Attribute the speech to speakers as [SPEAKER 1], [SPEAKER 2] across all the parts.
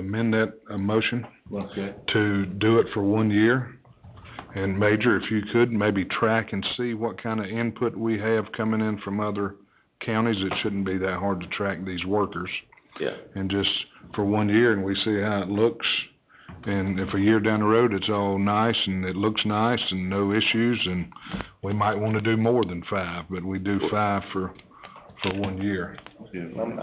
[SPEAKER 1] amend that, uh, motion
[SPEAKER 2] Okay.
[SPEAKER 1] to do it for one year. And Major, if you could, maybe track and see what kind of input we have coming in from other counties. It shouldn't be that hard to track these workers.
[SPEAKER 2] Yeah.
[SPEAKER 1] And just for one year, and we see how it looks. And if a year down the road, it's all nice and it looks nice and no issues, and we might wanna do more than five, but we do five for, for one year.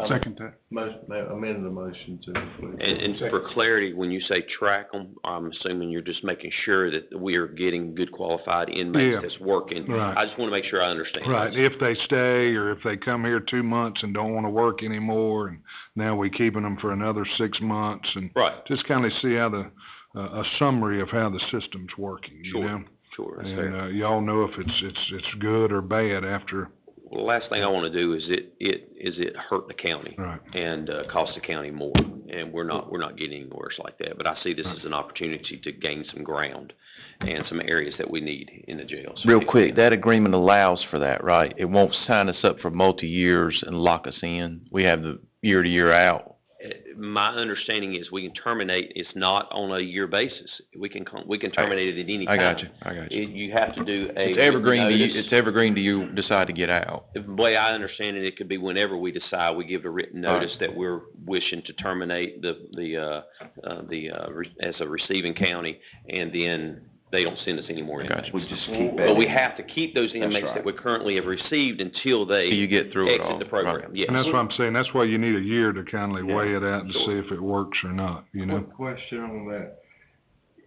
[SPEAKER 3] Second that.
[SPEAKER 4] Motion, amend the motion to include.
[SPEAKER 2] And, and for clarity, when you say track them, I'm assuming you're just making sure that we are getting good qualified
[SPEAKER 1] Yeah.
[SPEAKER 2] inmates that's working.
[SPEAKER 1] Right.
[SPEAKER 2] I just wanna make sure I understand.
[SPEAKER 1] Right, if they stay, or if they come here two months and don't wanna work anymore, and now we keeping them for another six months, and
[SPEAKER 2] Right,
[SPEAKER 1] just kinda see how the, a, a summary of how the system's working, you
[SPEAKER 2] Sure.
[SPEAKER 1] know?
[SPEAKER 2] sure, that's fair.
[SPEAKER 1] And, uh, y'all know if it's, it's, it's good or bad after,
[SPEAKER 2] Well, the last thing I wanna do is it, it, is it hurt the county
[SPEAKER 1] right,
[SPEAKER 2] and, uh, cost the county more. And we're not, we're not getting any worse like that, but I see this as an opportunity to gain some ground and some areas that we need in the jails.
[SPEAKER 5] Real quick, that agreement allows for that, right? It won't sign us up for multi-years and lock us in. We have the year to year out.
[SPEAKER 2] Uh, My understanding is we can terminate, it's not on a year basis. We can, con- we can terminate it at any
[SPEAKER 5] I
[SPEAKER 2] time.
[SPEAKER 5] got you, I got you.
[SPEAKER 2] It- You have to do a.
[SPEAKER 5] It's evergreen to you,
[SPEAKER 2] notice.
[SPEAKER 5] it's evergreen to you decide to get out.
[SPEAKER 2] The way I understand it, it could be whenever we decide, we give a written
[SPEAKER 5] All right.
[SPEAKER 2] notice that we're wishing to terminate the, the, uh, uh, the, uh, re- as a receiving county, and then they don't send us any more inmates.
[SPEAKER 5] Gotcha.
[SPEAKER 6] We just keep
[SPEAKER 2] But we
[SPEAKER 6] adding.
[SPEAKER 2] have to keep those inmates that
[SPEAKER 6] right.
[SPEAKER 2] we currently have received until
[SPEAKER 5] Till You
[SPEAKER 2] they
[SPEAKER 5] get through it all.
[SPEAKER 2] exit the
[SPEAKER 5] Right.
[SPEAKER 2] program, yes.
[SPEAKER 1] and that's what I'm saying, that's why you need a year to kindly weigh it out and
[SPEAKER 2] sure.
[SPEAKER 1] see if it works or not, you know?
[SPEAKER 4] Quick question on that.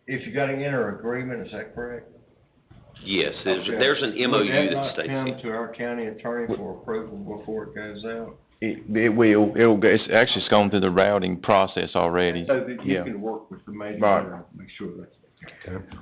[SPEAKER 4] If you got an inter agreement, is that correct?
[SPEAKER 2] Yes, there's,
[SPEAKER 4] Okay.
[SPEAKER 2] there's an MOU
[SPEAKER 4] Would that
[SPEAKER 2] that
[SPEAKER 4] not
[SPEAKER 2] states.
[SPEAKER 4] come to our county attorney for approval before it goes out?
[SPEAKER 5] It, it will, it'll, go- it's actually, it's gone through the routing process already.
[SPEAKER 4] So that you
[SPEAKER 5] Yeah.
[SPEAKER 4] can work with the major,
[SPEAKER 5] Right.
[SPEAKER 4] general, make sure that's.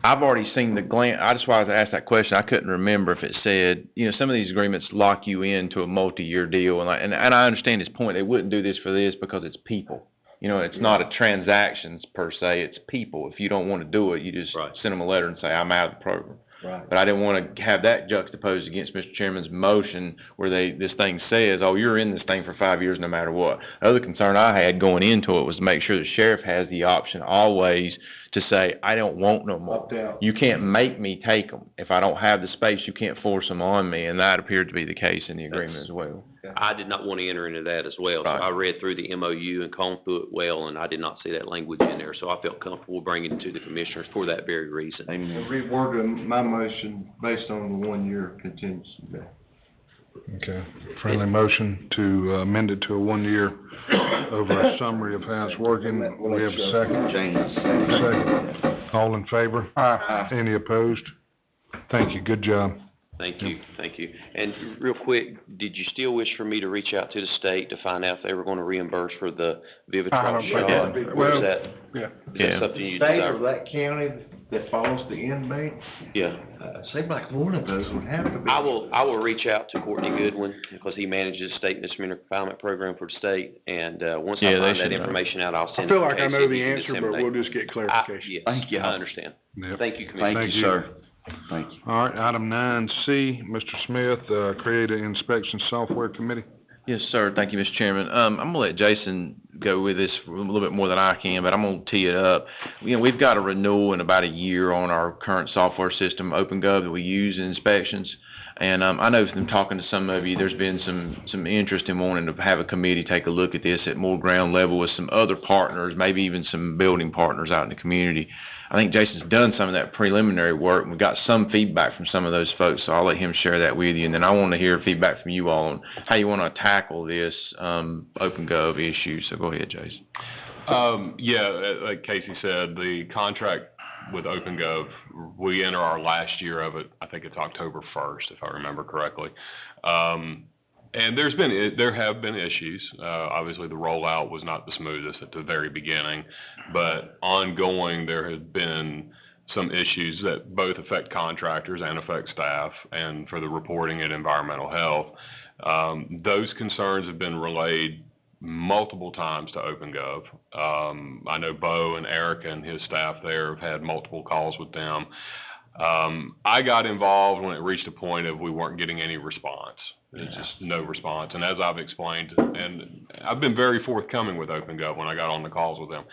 [SPEAKER 5] I've already seen the glan, I just wanted to ask that question, I couldn't remember if it said, you know, some of these agreements lock you into a multi-year deal, and I, and, and I understand his point, they wouldn't do this for this because it's people. You know, it's not a transactions per se, it's people, if you don't wanna do it, you just
[SPEAKER 2] Right.
[SPEAKER 5] send them a letter and say, I'm out of the program.
[SPEAKER 4] Right.
[SPEAKER 5] But I didn't wanna have that juxtaposed against Mr. Chairman's motion, where they, this thing says, oh, you're in this thing for five years no matter what. Other concern I had going into it was to make sure the sheriff has the option always to say, I don't want no more.
[SPEAKER 4] Opt out.
[SPEAKER 5] You can't make me take them. If I don't have the space, you can't force them on me, and that appeared to be the case in the agreement as well.
[SPEAKER 2] I did not want to enter into that as well. So
[SPEAKER 5] Right.
[SPEAKER 2] I read through the MOU and combed through it well, and I did not see that language in there. So I felt comfortable bringing it to the commissioners for that very reason.
[SPEAKER 4] I
[SPEAKER 6] Amen.
[SPEAKER 4] Reworded my motion based on the one-year contingency.
[SPEAKER 1] Okay, friendly motion to uh, amend it to a one-year over a summary of how it's working. We have a second,
[SPEAKER 6] James.
[SPEAKER 1] Second. all in favor?
[SPEAKER 6] Aye.
[SPEAKER 1] Any opposed? Thank you, good job.
[SPEAKER 2] Thank you, thank you. And real quick, did you still wish for me to reach out to the state to find out if they were going to reimburse for the Vivitrol
[SPEAKER 3] don't
[SPEAKER 2] shot?
[SPEAKER 3] think-
[SPEAKER 2] Or
[SPEAKER 3] well,
[SPEAKER 2] is that,
[SPEAKER 3] yeah.
[SPEAKER 2] is that
[SPEAKER 5] Yeah.
[SPEAKER 2] something you
[SPEAKER 4] State or
[SPEAKER 2] desire?
[SPEAKER 4] that county that follows the inmate,
[SPEAKER 2] Yeah.
[SPEAKER 4] uh, seems like one of those would have to be.
[SPEAKER 2] I will, I will reach out to Courtney Goodwin, because he manages state misdemeanor confinement program for the state, and, uh, once I
[SPEAKER 5] Yeah, they
[SPEAKER 2] find
[SPEAKER 5] should
[SPEAKER 2] that
[SPEAKER 5] know.
[SPEAKER 2] information out, I'll
[SPEAKER 3] I
[SPEAKER 2] send it to
[SPEAKER 3] feel like I
[SPEAKER 2] Casey
[SPEAKER 3] know
[SPEAKER 2] if
[SPEAKER 3] the
[SPEAKER 2] you can
[SPEAKER 3] answer, but
[SPEAKER 2] disseminate.
[SPEAKER 3] we'll just get
[SPEAKER 2] I-
[SPEAKER 3] clarification.
[SPEAKER 2] Yes,
[SPEAKER 6] Thank you.
[SPEAKER 2] I
[SPEAKER 5] Uh,
[SPEAKER 2] understand.
[SPEAKER 1] Yep.
[SPEAKER 2] Thank you, Commissioner.
[SPEAKER 6] Thank
[SPEAKER 1] Thank
[SPEAKER 6] you,
[SPEAKER 1] you.
[SPEAKER 6] sir. Thank you.
[SPEAKER 1] All right, item nine C, Mr. Smith, uh, create an inspection software committee.
[SPEAKER 5] Yes, sir. Thank you, Mr. Chairman. Um, I'm gonna let Jason go with this a little bit more than I can, but I'm gonna tee it up. You know, we've got a renewal in about a year on our current software system, OpenGov, that we use in inspections. And, um, I know from talking to some of you, there's been some, some interest in wanting to have a committee take a look at this at more ground level with some other partners, maybe even some building partners out in the community. I think Jason's done some of that preliminary work, and we got some feedback from some of those folks, so I'll let him share that with you. And then I want to hear feedback from you all on how you want to tackle this, um, OpenGov issue, so go ahead, Jason.
[SPEAKER 7] Um, yeah, uh, like Casey said, the contract with OpenGov, we enter our last year of it, I think it's October first, if I remember correctly. Um, and there's been, i- there have been issues. Uh, obviously, the rollout was not the smoothest at the very beginning, but ongoing, there have been some issues that both affect contractors and affect staff, and for the reporting and environmental health. Um, those concerns have been relayed multiple times to OpenGov. Um, I know Bo and Eric and his staff there have had multiple calls with them. Um, I got involved when it reached a point of we weren't getting any response. There's just no response. And as I've explained, and I've been very forthcoming with OpenGov when I got on the calls with them.